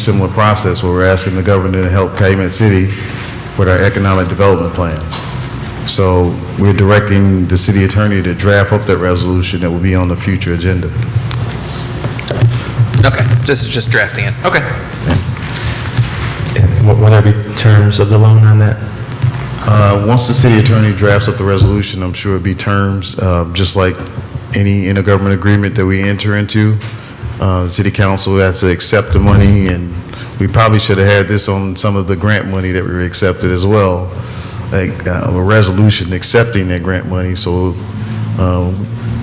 similar process where we're asking the governor to help Calumet City with our economic development plans. So we're directing the city attorney to draft up that resolution that will be on the future agenda. Okay, this is just drafting it. Okay. What what are the terms of the loan on that? Uh, Once the city attorney drafts up the resolution, I'm sure it'd be terms, uh, just like any intergovernment agreement that we enter into. Uh, The City council has to accept the money, and we probably should have had this on some of the grant money that we accepted as well, like uh, a resolution accepting that grant money. So um,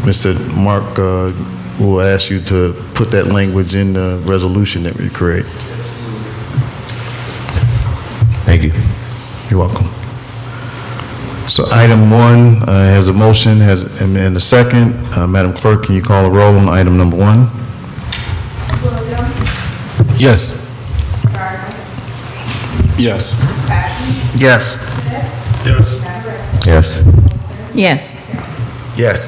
Mr. Mark uh, will ask you to put that language in the resolution that we create. Thank you. You're welcome. So item one uh, has a motion, has, and and a second. Uh, Madam Clerk, can you call a roll on item number one? Williams, Yes. Gardner, Yes. Patton, Yes. Smith, Mataresi. Yes. Yes. Yes, Yes.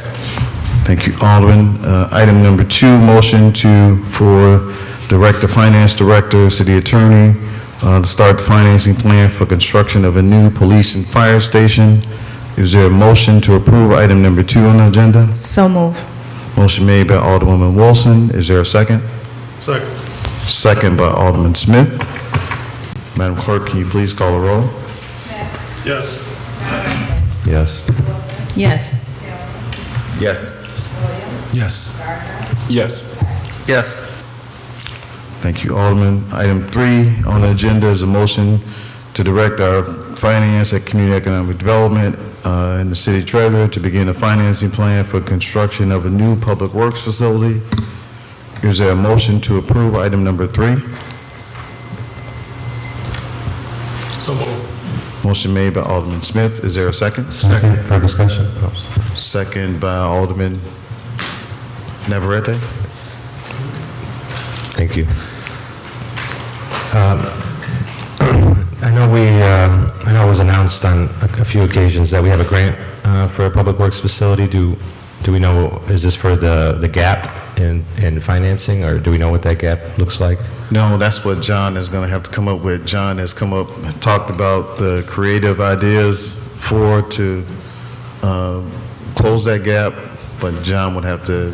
Thank you, Alderman. Uh, Item number two, motion to, for Director, Finance Director, City Attorney, uh, to start the financing plan for construction of a new police and fire station. Is there a motion to approve item number two on the agenda? so move. Motion made by Alderwoman Wilson. Is there a second? Second. Second by Alderman Smith. Madam Clerk, can you please call the roll? Yes. Yes. Yes, Yes. Yes. Yes. Yes. Thank you, Alderman. Item three on the agenda is a motion to direct our finance and community economic development uh, and the city treasurer to begin a financing plan for construction of a new public works facility. Is there a motion to approve item number three? So moved. Motion made by Alderman Smith. Is there a second? Second for discussion? Second by Alderman Navarrete. Thank you. Um, I know we, um, I know it was announced on a a few occasions that we have a grant uh, for a public works facility. Do, do we know, is this for the, the gap in, in financing, or do we know what that gap looks like? No, that's what John is going to have to come up with. John has come up, and talked about the creative ideas for to um, close that gap, but John would have to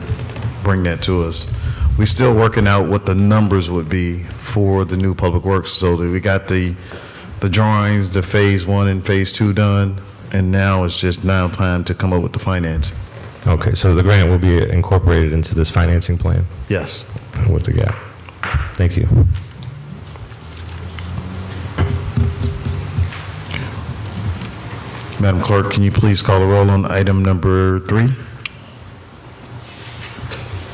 bring that to us. We're still working out what the numbers would be for the new public works facility. We got the, the drawings, the phase one and phase two done, and now it's just now time to come up with the financing. Okay, so the grant will be incorporated into this financing plan Yes. with the gap. Thank you. Madam Clerk, can you please call the roll on item number three?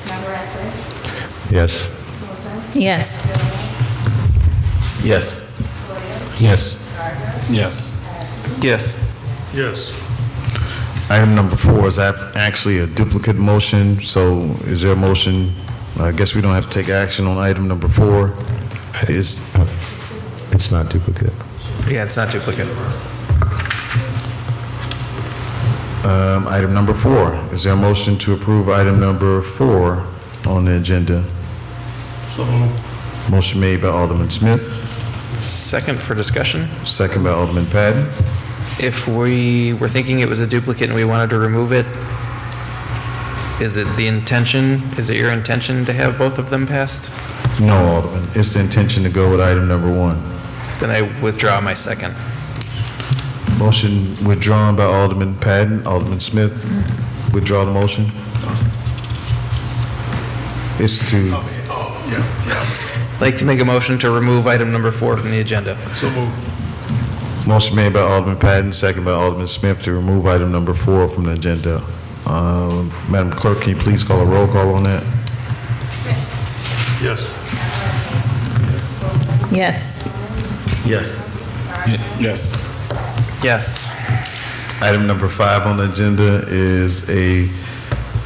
Mataresi. Yes. Wilson, yes, Yes. Yes. Yes. Yes. Yes. Item number four is ap- actually a duplicate motion, so is there a motion? I guess we don't have to take action on item number four. Is, It's not duplicate. Yeah, it's not duplicate. um, item number four, is there a motion to approve item number four on the agenda? So moved. Motion made by Alderman Smith, Second for discussion. second by Alderman Patton. If we were thinking it was a duplicate and we wanted to remove it, is it the intention, is it your intention to have both of them passed? No, Alderman, it's the intention to go with item number one. Then I withdraw my second. Motion withdrawn by Alderman Patton. Alderman Smith, withdraw the motion. It's to, Like to make a motion to remove item number four from the agenda. So moved. motion made by Alderman Patton, second by Alderman Smith to remove item number four from the agenda. Um, Madam Clerk, can you please call a roll call on that? Yes. yes, Yes. Yes. Yes. Item number five on the agenda is a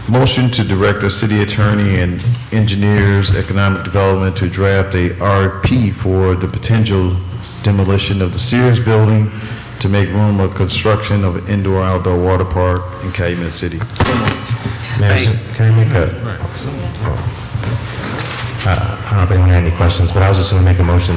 motion to direct the city attorney and engineers, economic development to draft a RFP for the potential demolition of the Sears building to make room for construction of an indoor-outdoor water park in Calumet City. May I- Can I make a? Uh, I don't know if anyone had any questions, but I was just going to make a motion